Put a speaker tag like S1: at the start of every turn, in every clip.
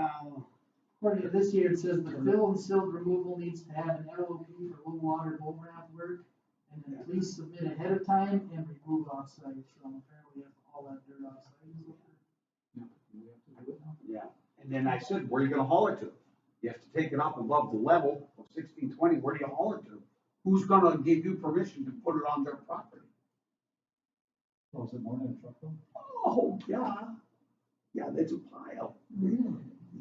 S1: Uh, According to this here, it says the fill and silt removal needs to have an LOP for low water, low ground work. And then please submit ahead of time and remove offsite, so apparently we have all that dirt offsite.
S2: Yeah, and then I said, where are you gonna haul it to? You have to take it up above the level of sixteen twenty, where do you haul it to? Who's gonna give you permission to put it on their property?
S3: Oh, is it more than a truck though?
S2: Oh, yeah, yeah, that's a pile.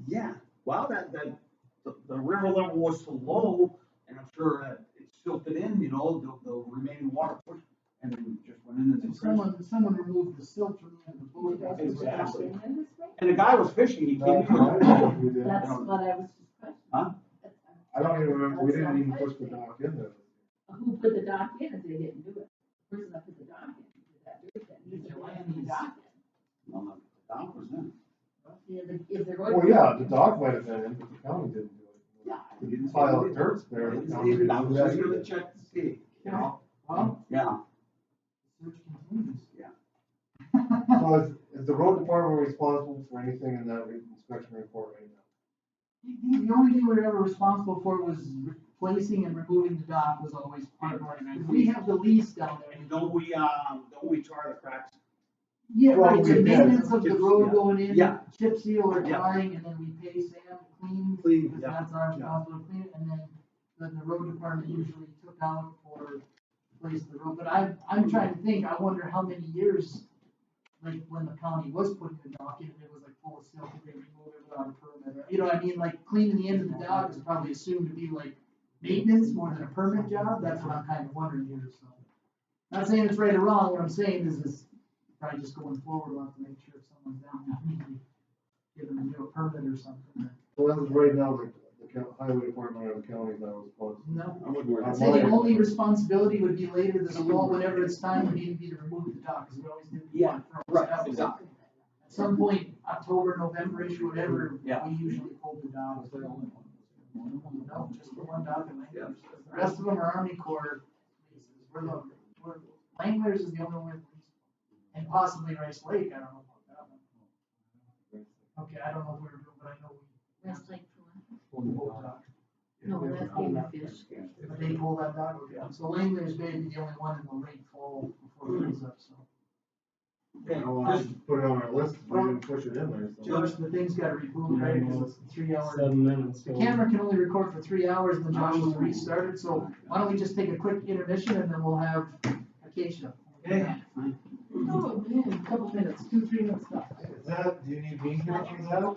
S2: Yeah, well, that, that, the, the river level was so low, and I'm sure that it silted in, you know, the, the remaining water, pushed and then just went into
S1: So
S2: the. creek.
S1: someone, someone removed the silt from the bullet.
S2: Exactly.
S4: That's
S2: And the guy was fishing, he came in.
S4: what I was just questioning.
S2: Huh?
S3: I don't even remember, we didn't even push the dock in there.
S4: Who put the dock in if they didn't do it? The person that put the dock in, who did that dirt then, he's the one who put the dock
S2: Well, no, the dock was in.
S4: in. Yeah, but If they're going.
S3: Well, yeah, the dock might have been in, but the county didn't do it.
S2: Yeah.
S3: The pile of dirt's there. the county didn't
S2: I was
S3: do
S2: just
S3: it.
S2: gonna check to see, you know?
S1: Well,
S2: Yeah.
S1: search continues.
S2: Yeah.
S3: So is, is the road department responsible for anything in that re- inspection report right now?
S1: The, the only thing we were ever responsible for was replacing and removing the dock was always part of our, we have the lease down there.
S2: And don't we, um, don't we tar the cracks?
S1: Yeah,
S3: Well,
S1: right, the
S3: we- yeah.
S1: maintenance of the
S2: Chip
S1: road
S2: seal.
S1: going in,
S2: Yeah.
S1: chip seal or
S2: Yeah.
S1: drying, and then we pay Sam to clean.
S2: Clean,
S1: Because
S2: yeah,
S1: that's our
S2: yeah.
S1: responsibility, to clean it, and then, then the road department usually took out or placed the road, but I, I'm trying to think, I wonder how many years, like, when the county was putting the dock in, it was like full of silt, did they remove it without a permit, you know what I mean, like, cleaning the end of the dock is probably assumed to be like maintenance more than a permit job, that's what I'm kind of wondering here, so. Not saying it's right or wrong, what I'm saying is, is probably just going forward, we'll have to make sure if someone's down, we can give them a new permit or something.
S3: Well, that is right now, the, the coun- highway department or the county is not responsible.
S1: No.
S2: I wouldn't worry.
S1: I'd say the only responsibility would be later this fall, whenever it's time for me to be to remove the dock, because we always do. the one first.
S2: right,
S1: That was-
S2: exactly.
S1: At some point, October, November-ish, whatever,
S2: Yeah.
S1: we usually pull the dock. oh, No, just the one dock in
S2: Yeah.
S1: Langley. The rest of them are Army Corps leases. We're the, we're, Langley's is the only one. And possibly Rice Lake, I don't know about that one. Okay, I don't know where, but I know we,
S4: That's like,
S1: we pull the dock.
S4: no, that's being a fish.
S1: If they pull that dock, yeah. So Langley's maybe the only one in the late fall before it freezes up, so.
S3: I don't want to put it on our list, we didn't push it in there, so.
S1: Josh, the thing's gotta reboot, right, because it's a three hour,
S5: Seven minutes.
S1: the camera can only record for three hours, and then Josh will restart it, so why don't we just take a quick intermission and then we'll have Acacia.
S2: Okay.
S4: Oh, man,
S1: Couple minutes, two, three minutes, stop.
S3: Is that, do you need me here for that?